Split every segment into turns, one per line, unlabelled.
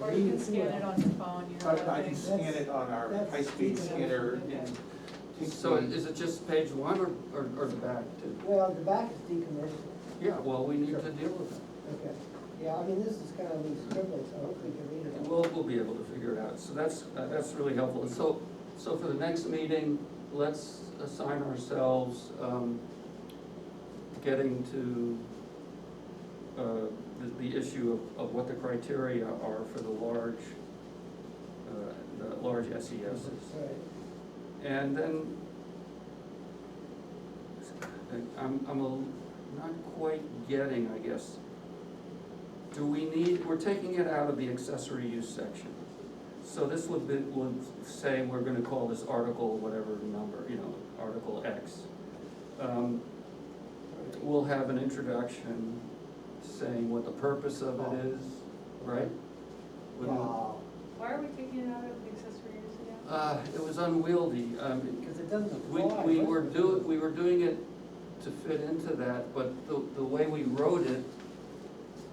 or you can scan it on your phone,
I,
your.
I can scan it on our high-speed scanner and take.
So
the-
is it just page one or, or, or the back too?
Well, the back is decommissioned,
Yeah, well, we need to deal with it.
okay. Yeah, I mean, this is kind of loose scribbling, so hopefully you can read
And
it.
we'll, we'll be able to figure it out. So that's, uh, that's really helpful. And so, so for the next meeting, let's assign ourselves, um, getting to, uh, the, the issue of, of what the criteria are for the large, uh, the large E SESs.
Right.
And then, I'm, I'm a- not quite getting, I guess. Do we need, we're taking it out of the accessory use section. So this would be, would say we're gonna call this article whatever number, you know, Article X. Um, We'll have an introduction saying what the purpose of it is, right? Wouldn't-
Uh,
Wow,
Why are we taking it out of the accessory use again?
Uh, it was unwieldy, um,
because it doesn't
we,
apply.
we
does
were
it?
do, we were doing it to fit into that, but the, the way we wrote it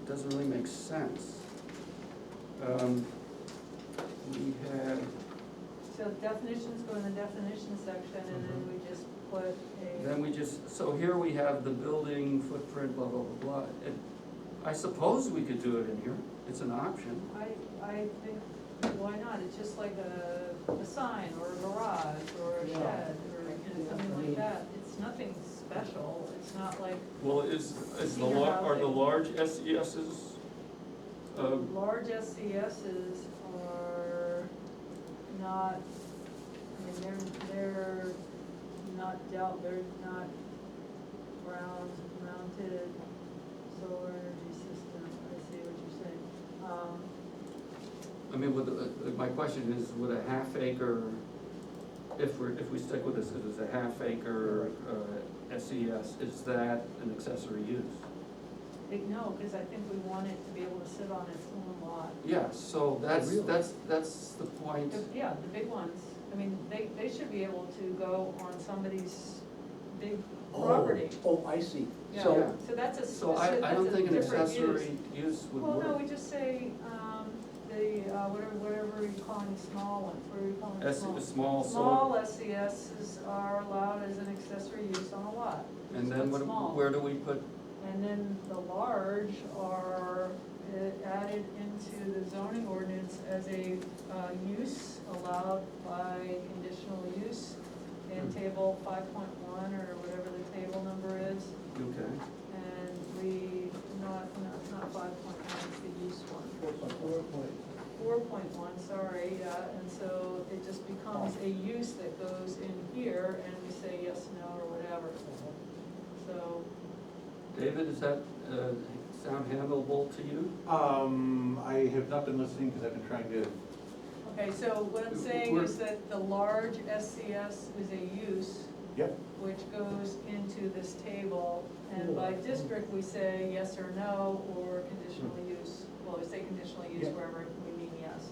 doesn't really make sense. Um, We had,
So definitions go in the definition section and then we just put a,
then we just, so here we have the building footprint, blah, blah, blah, blah. It- I suppose we could do it in here, it's an option.
I, I think, why not? It's just like a, a sign or a garage or a
Yeah.
shed or, you know, something like that. It's nothing special. It's not like
Well, is,
is the lar- are the E
large SESs, Um,
large SCSs are not, I mean, they're, they're not dealt, they're not ground mounted solar energy system, I see what you're saying. Um,
I mean, would, uh, my question is, would a half acre, if we're, if we stick with this, it is a half acre, uh, SES, is that an accessory use?
big no, because I think we want it to be able to sit on its own lot.
Yeah, so that's,
Really?
that's, that's the point,
The- Yeah, the big ones, I mean, they, they should be able to go on somebody's big
Oh,
property.
Oh, I see.
Yeah,
So,
So that's a, s-
so I, I
that's
don't
a
think an
different use.
accessory use would
Well, no,
work.
we just say, um, the, uh, whatever, whatever you're calling small ones, what are you calling
S,
small?
small, so,
Small SESs are allowed as an accessory use on a lot,
and
so
then
it's
what,
small.
where do we put,
and then the large are uh, added into the zoning ordinance as a, uh, use allowed by conditional use in
Hmm.
table five point one or whatever the table number is,
okay,
and we, not, no, it's not five point one, it's the use one.
Four point- four point.
four point one, sorry, yeah, and so it just becomes a use that goes in here, and we say yes, no, or whatever, so.
David, is that, uh, sound handleable to you?
Um, I have not been listening because I've been trying to,
Okay, so what I'm saying is that the large SCS is a use
yep,
which goes into this table, and by district, we say yes or no, or conditional
Hmm.
use, well, we say conditional use
Yeah.
wherever we mean yes.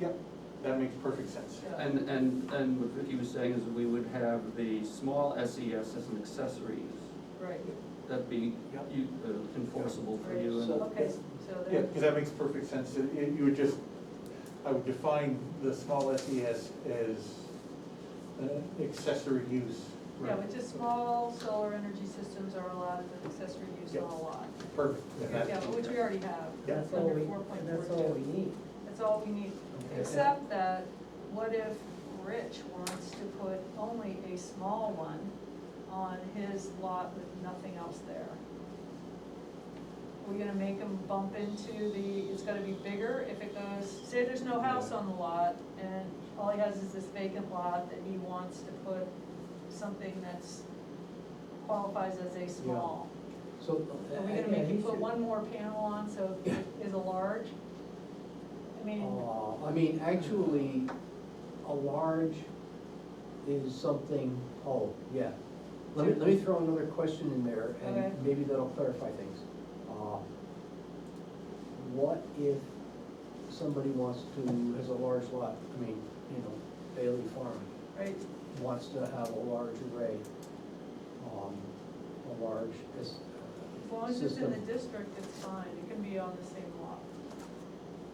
yep, that makes perfect sense.
Yeah.
And, and, and what Vicky was saying is we would have the small SES as an accessory use.
Right,
That'd be
Yep.
you- uh, enforceable for you. and-
So-
okay, so
Yeah,
there,
because that makes perfect sense. It- it- You would just, I would define the small SES as an accessory use.
yeah, which is small solar energy systems are allowed as an accessory use on
Yeah.
a lot.
Perfect. And that-
Yeah, which we already have.
Yeah.
That's all
Under
we,
4.42.
that's all we need.
That's all we need, except that, what if Rich wants to put only a small one on his lot with nothing else there? We're gonna make him bump into the, it's gonna be bigger if it goes, say there's no house on the lot, and all he has is this vacant lot that he wants to put something that's qualifies as a small.
so.
Are we gonna make you put one more panel on, so it is a large? I mean,
Uh, I mean, actually, a large is something, oh, yeah. Let me, let me throw another question in there,
Okay.
and maybe that'll clarify things. Uh, What if somebody wants to, has a large lot, I mean, you know, Bailey Farm,
right,
wants to have a large array, um, a large, is,
as long as it's in the
System.
district, it's fine, it can be on the same